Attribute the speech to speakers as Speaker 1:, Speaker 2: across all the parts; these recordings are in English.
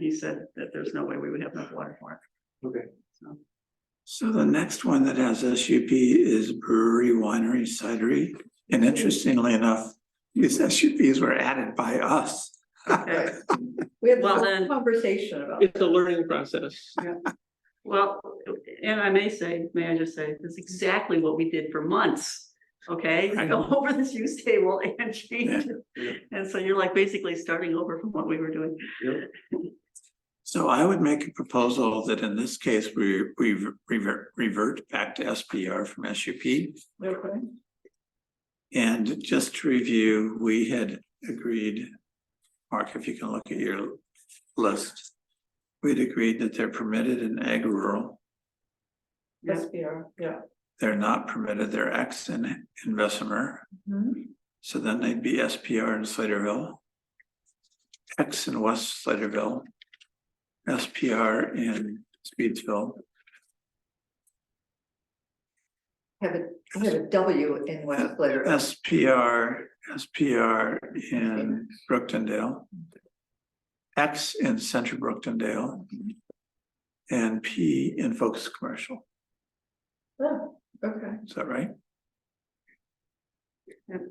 Speaker 1: he said that there's no way we would have enough water for it.
Speaker 2: Okay.
Speaker 1: So,
Speaker 3: So the next one that has SUP is brewery, winery, cidery, and interestingly enough, these SUPs were added by us.
Speaker 1: okay,
Speaker 4: We had
Speaker 1: Well,
Speaker 4: a
Speaker 1: then-
Speaker 4: conversation about.
Speaker 2: It's a learning process.
Speaker 1: well, and I may say, may I just say, that's exactly what we did for months. Okay,
Speaker 3: I
Speaker 1: go over this use table and change
Speaker 2: Yeah.
Speaker 1: it. And so you're like basically starting over from what we were doing.
Speaker 3: So I would make a proposal that in this case, we, we revert, revert back to SPR from SUP.
Speaker 1: Okay.
Speaker 3: And just to review, we had agreed, Mark, if you can look at your list. We'd agreed that they're permitted in ag rural,
Speaker 1: Yeah.
Speaker 4: SBR, yeah.
Speaker 3: they're not permitted, they're X in, in Bessemer.
Speaker 1: Mm-hmm.
Speaker 3: So then they'd be SPR in Sladeville. X in West Sladeville. SPR in Speedsville,
Speaker 4: Have a, I have a W in West Blair.
Speaker 3: SPR, SPR in Brooktondale. X in Central Brooktondale. And P in Focus Commercial,
Speaker 4: Oh, Okay,
Speaker 3: is that right?
Speaker 4: okay.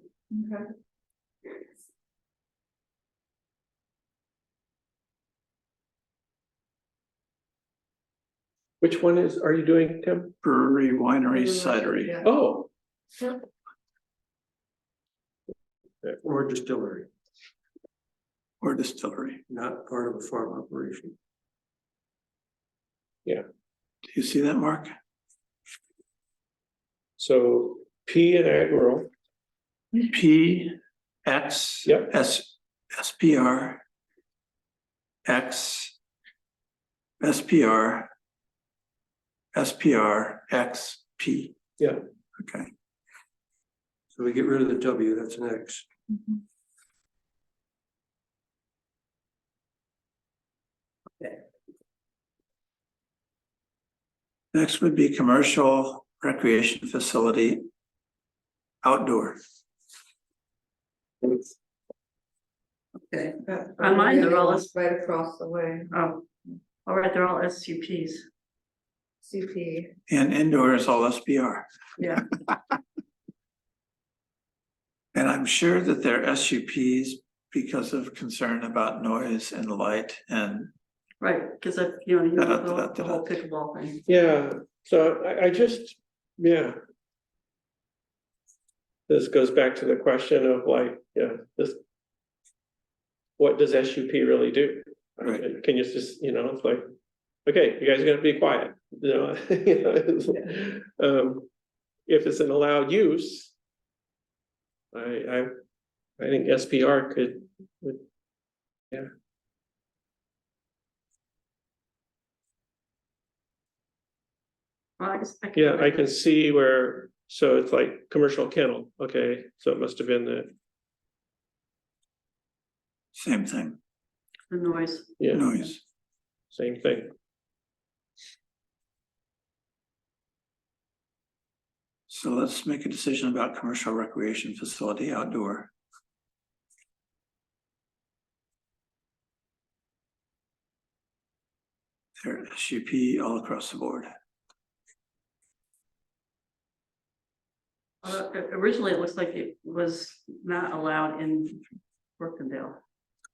Speaker 2: Which one is, are you doing, Tim?
Speaker 3: Brewery, winery, cidery,
Speaker 4: Yeah.
Speaker 2: Oh.
Speaker 4: Yeah.
Speaker 2: Or distillery,
Speaker 3: or distillery.
Speaker 2: not part of a farm operation.
Speaker 3: Do you see that, Mark?
Speaker 2: So P and ag rural,
Speaker 3: P, X.
Speaker 2: Yep.
Speaker 3: S, SPR. X. SPR. SPR, X, P.
Speaker 2: Yeah.
Speaker 3: Okay,
Speaker 5: So we get rid of the W, that's an X.
Speaker 1: Mm-hmm.
Speaker 4: Mhm.
Speaker 3: next would be commercial recreation facility. Outdoor,
Speaker 1: Okay,
Speaker 4: That-
Speaker 1: On mine, they're all-
Speaker 4: Right across the way,
Speaker 1: oh, all right, they're all SCPs.
Speaker 4: CP,
Speaker 3: and indoor is all SPR.
Speaker 1: Yeah.
Speaker 3: And I'm sure that they're SUPs because of concern about noise and light and
Speaker 1: Right, because I, you know, you
Speaker 3: Da, da,
Speaker 1: know, the
Speaker 3: da, da,
Speaker 1: the
Speaker 3: da.
Speaker 1: whole pickleball thing.
Speaker 2: yeah, so I, I just, yeah. This goes back to the question of like, yeah, this. What does SUP really do?
Speaker 3: Right.
Speaker 2: Can you just, you know, it's like, okay, you guys are gonna be quiet, you know? it's, um, If it's an allowed use. I, I, I think SPR could, would
Speaker 1: Well, I guess I can-
Speaker 2: Yeah, I can see where, so it's like commercial kennel, okay, so it must have been the,
Speaker 3: same thing,
Speaker 1: The noise,
Speaker 2: yeah,
Speaker 3: noise.
Speaker 2: same thing.
Speaker 3: So let's make a decision about commercial recreation facility outdoor. There, SUP all across the board.
Speaker 1: Uh, originally it looks like it was not allowed in Brookendale.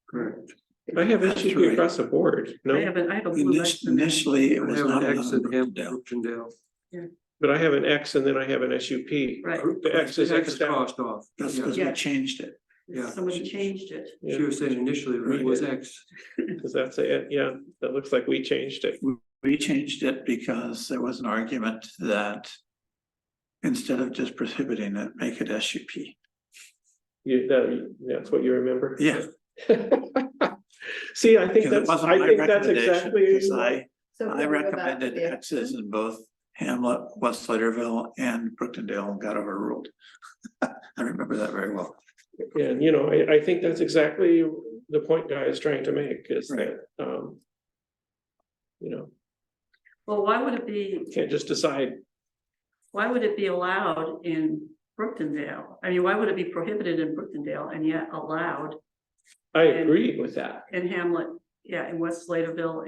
Speaker 5: Correct.
Speaker 2: I have
Speaker 3: That's
Speaker 2: SUP
Speaker 3: right.
Speaker 2: across the board,
Speaker 1: I
Speaker 2: no,
Speaker 1: have a, I have a blue X
Speaker 3: Init-
Speaker 1: in there.
Speaker 3: Initially, it
Speaker 5: I
Speaker 3: was
Speaker 5: have
Speaker 3: not.
Speaker 5: an
Speaker 3: allowed
Speaker 5: X
Speaker 3: in
Speaker 5: in
Speaker 3: Brookdale.
Speaker 5: Hampton, Brookendale.
Speaker 2: but I have an X and then I have an SUP. The
Speaker 1: Right,
Speaker 2: X is
Speaker 5: The X
Speaker 2: Xed out,
Speaker 5: crossed off.
Speaker 3: That's
Speaker 5: Yeah.
Speaker 3: because we
Speaker 1: Yeah.
Speaker 3: changed it.
Speaker 5: Yeah.
Speaker 1: somebody changed it.
Speaker 2: yeah,
Speaker 5: She was saying initially it was X.
Speaker 2: because that's it, yeah, that looks like we changed it,
Speaker 3: We changed it because there was an argument that instead of just prohibiting it, make it SUP.
Speaker 2: you, that, that's what you remember?
Speaker 3: Yeah.
Speaker 2: See, I
Speaker 3: Because
Speaker 2: think
Speaker 3: it
Speaker 2: that's,
Speaker 3: wasn't
Speaker 2: I
Speaker 3: my
Speaker 2: think that's
Speaker 3: recommendation,
Speaker 2: exactly,
Speaker 3: Because I
Speaker 4: so.
Speaker 3: I
Speaker 4: then we go back to
Speaker 3: recommended
Speaker 4: the-
Speaker 3: X's in both Hamlet, West Sladeville and Brooktondale and got overruled. I remember that very well.
Speaker 2: and you know, I, I think that's exactly the point guy is trying to make, is
Speaker 3: Right.
Speaker 2: that, um. You know,
Speaker 1: Well, why would it be,
Speaker 2: you can't just decide
Speaker 1: why would it be allowed in Brookendale? I mean, why would it be prohibited in Brookendale and yet allowed
Speaker 2: I
Speaker 1: And-
Speaker 2: agree with that.
Speaker 1: in Hamlet yeah, in West Sladeville